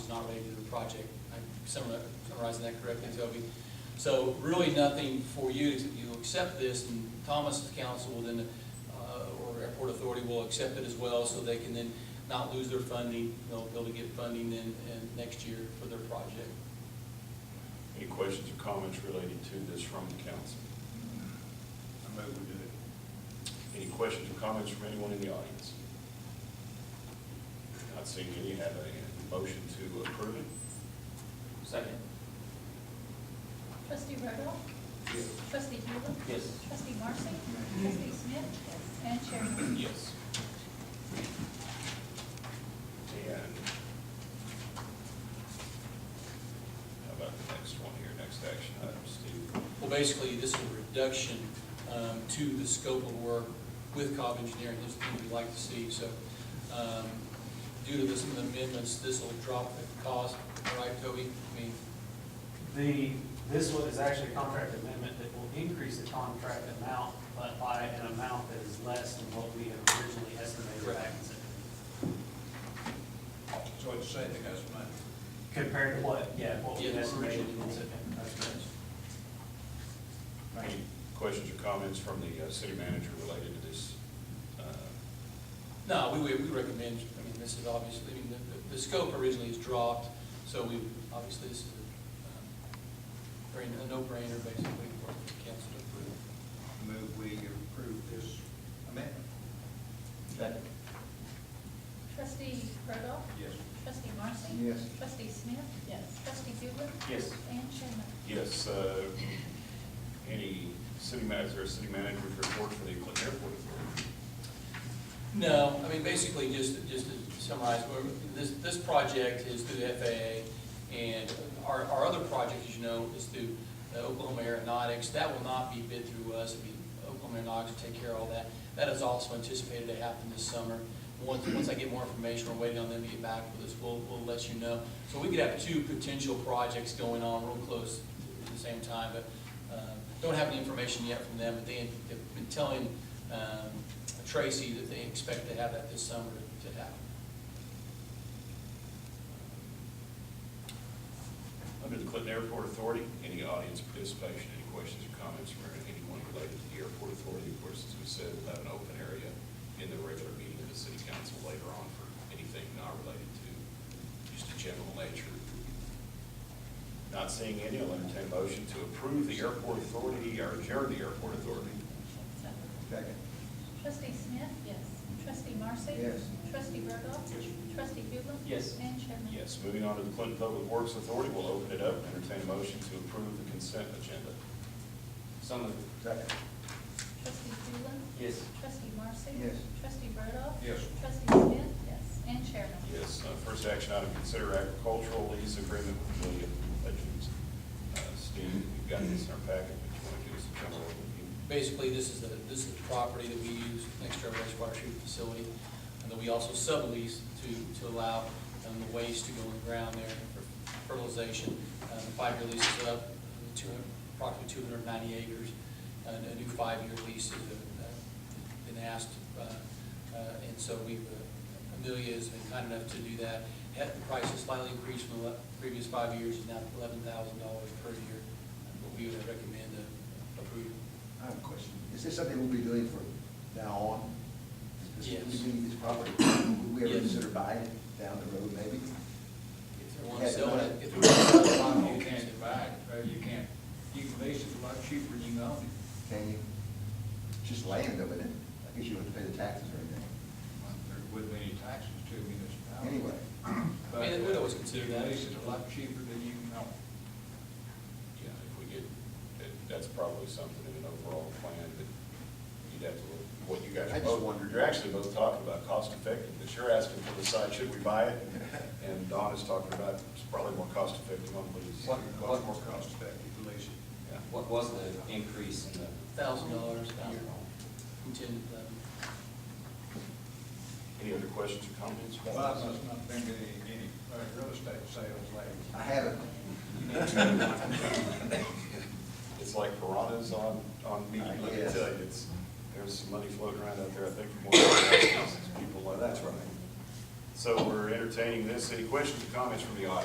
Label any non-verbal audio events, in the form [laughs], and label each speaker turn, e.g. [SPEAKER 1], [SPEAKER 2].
[SPEAKER 1] not ready to do the project. I'm summar- summarizing that correctly, Toby. So really nothing for you, you accept this, and Thomas Council will then, uh, or Airport Authority will accept it as well, so they can then not lose their funding, they'll be able to get funding then, in next year for their project.
[SPEAKER 2] Any questions or comments related to this from the council?
[SPEAKER 3] I move we do it.
[SPEAKER 2] Any questions or comments from anyone in the audience? Not seeing any, have a motion to approve it?
[SPEAKER 4] Second.
[SPEAKER 5] Trustee Rexbro.
[SPEAKER 4] Yes.
[SPEAKER 5] Trustee Huber.
[SPEAKER 4] Yes.
[SPEAKER 5] Trustee Marcy. Trustee Smith. And Chair Moore.
[SPEAKER 2] Yes. And how about the next one here, next action item, Steve?
[SPEAKER 1] Well, basically, this is a reduction um, to the scope of work with Cobb Engineering, this is what we'd like to see, so um, due to this amendments, this will drop the cost, right, Toby? I mean,
[SPEAKER 6] The, this one is actually a contract amendment that will increase the contract amount, but by an amount that is less than what we had originally estimated back in September.
[SPEAKER 3] So it's saving us money.
[SPEAKER 6] Compared to what, yeah, what we
[SPEAKER 1] Yeah,
[SPEAKER 6] estimated
[SPEAKER 1] originally.
[SPEAKER 6] in September. That's correct.
[SPEAKER 2] Any questions or comments from the uh, city manager related to this? uh,
[SPEAKER 1] No, we, we we recommend, I mean, this is obviously, I mean, the- the, the scope originally is dropped, so we, obviously, this is a, um, very- a no-brainer, basically, for the council to approve.
[SPEAKER 3] Move we approve this amendment.
[SPEAKER 4] Second.
[SPEAKER 5] Trustee Rexbro.
[SPEAKER 3] Yes.
[SPEAKER 5] Trustee Marcy.
[SPEAKER 3] Yes.
[SPEAKER 5] Trustee Smith. Yes. Trustee Huber.
[SPEAKER 4] Yes.
[SPEAKER 5] And Chair Moore.
[SPEAKER 2] Yes, uh, any city manager, city manager's report for the Clinton Airport Authority?
[SPEAKER 1] No, I mean, basically, just, just to summarize, we're- this, this project is through the FAA, and our, our other project, as you know, is through uh, Oklahoma Aeronautics. That will not be bid through us, it'll be Oklahoma Aeronautics will take care of all that. That is also anticipated to happen this summer. Once, once I get more information, we're waiting on them to get back with us, we'll, we'll let you know. So we could have two potential projects going on real close at the same time, but uh, don't have any information yet from them, but they, they've been telling um, Tracy that they expect to have that this summer to happen.
[SPEAKER 2] Under the Clinton Airport Authority, any audience participation, any questions or comments from anyone related to the airport authority? Of course, as we said, we'll have an open area in the regular meeting of the city council later on for anything not related to just the general nature. Not seeing any, I'll entertain a motion to approve the airport authority or adjourn the airport authority.
[SPEAKER 3] Second.
[SPEAKER 5] Trustee Smith. Yes. Trustee Marcy.
[SPEAKER 3] Yes.
[SPEAKER 5] Trustee Rexbro. Trustee Huber.
[SPEAKER 4] Yes.
[SPEAKER 5] And Chair Moore.
[SPEAKER 2] Yes, moving on to the Clinton Public Works Authority, we'll open it up, entertain a motion to approve the consent agenda.
[SPEAKER 4] So moved.
[SPEAKER 3] Second.
[SPEAKER 5] Trustee Huber.
[SPEAKER 4] Yes.
[SPEAKER 5] Trustee Marcy.
[SPEAKER 3] Yes.
[SPEAKER 5] Trustee Rexbro.
[SPEAKER 3] Yes.
[SPEAKER 5] Trustee Smith. Yes. And Chair Moore.
[SPEAKER 2] Yes, uh, first action item, consider agricultural lease agreement with William Legends. Uh, Steve, we've got this in our packet, but you want to give us a general overview?
[SPEAKER 1] Basically, this is the, this is the property that we use next to our wastewater treatment facility, and that we also sublease to, to allow um, the waste to go in the ground there for fertilization. Uh, The five-year lease is up, two hundred, approximately two hundred and ninety acres, and a new five-year lease is, uh, been asked, uh, uh, and so we've, uh, Amelia has been kind enough to do that. Had- The price has slightly increased from the le- previous five years, is now eleven thousand dollars per year, but we would recommend uh, approval.
[SPEAKER 7] I have a question. Is this something we'll be doing from now on? Is this-
[SPEAKER 1] Yes.
[SPEAKER 7] We need this property, would we ever
[SPEAKER 1] Yes.
[SPEAKER 7] consider buying it down the road, maybe?
[SPEAKER 1] If they want to
[SPEAKER 7] Yes,
[SPEAKER 1] sell
[SPEAKER 7] but-
[SPEAKER 1] it, if they want to sell it,
[SPEAKER 3] You
[SPEAKER 1] you can.
[SPEAKER 3] can't buy it, but you can't, you can lease it a lot cheaper than you own it.
[SPEAKER 7] Can you? It's Just land though, isn't it? I guess you wouldn't pay the taxes or anything.
[SPEAKER 3] There wouldn't be any taxes to a municipality.
[SPEAKER 7] Anyway.
[SPEAKER 3] But,
[SPEAKER 1] I mean, we'd always
[SPEAKER 3] uh,
[SPEAKER 1] consider
[SPEAKER 3] you
[SPEAKER 1] that.
[SPEAKER 3] Lease it a lot cheaper than you can own it.
[SPEAKER 2] Yeah, if we get, that- that's probably something in an overall plan, but you'd have to look, what you guys
[SPEAKER 7] I
[SPEAKER 2] are
[SPEAKER 7] just
[SPEAKER 2] both,
[SPEAKER 7] wondered.
[SPEAKER 2] you're actually both talking about cost effectiveness. You're asking for the site, should we buy it? And Don is talking about, it's probably more cost effective on lease.
[SPEAKER 4] What-
[SPEAKER 3] Much more cost effective to lease it.
[SPEAKER 2] Yeah.
[SPEAKER 4] What was the increase in the?
[SPEAKER 1] Thousand dollars a year, from ten to eleven.
[SPEAKER 2] Any other questions or comments? about
[SPEAKER 3] Bob
[SPEAKER 2] this?
[SPEAKER 3] must not been to any, any uh, real estate sales lately.
[SPEAKER 7] I haven't.
[SPEAKER 2] [laughs] It's like piranhas on, on meat,
[SPEAKER 7] I
[SPEAKER 2] let me
[SPEAKER 7] guess.
[SPEAKER 2] tell you, it's, there's some money floating around out there, I think, from one of the people, like, that's right. So we're entertaining this, any questions or comments from the audience?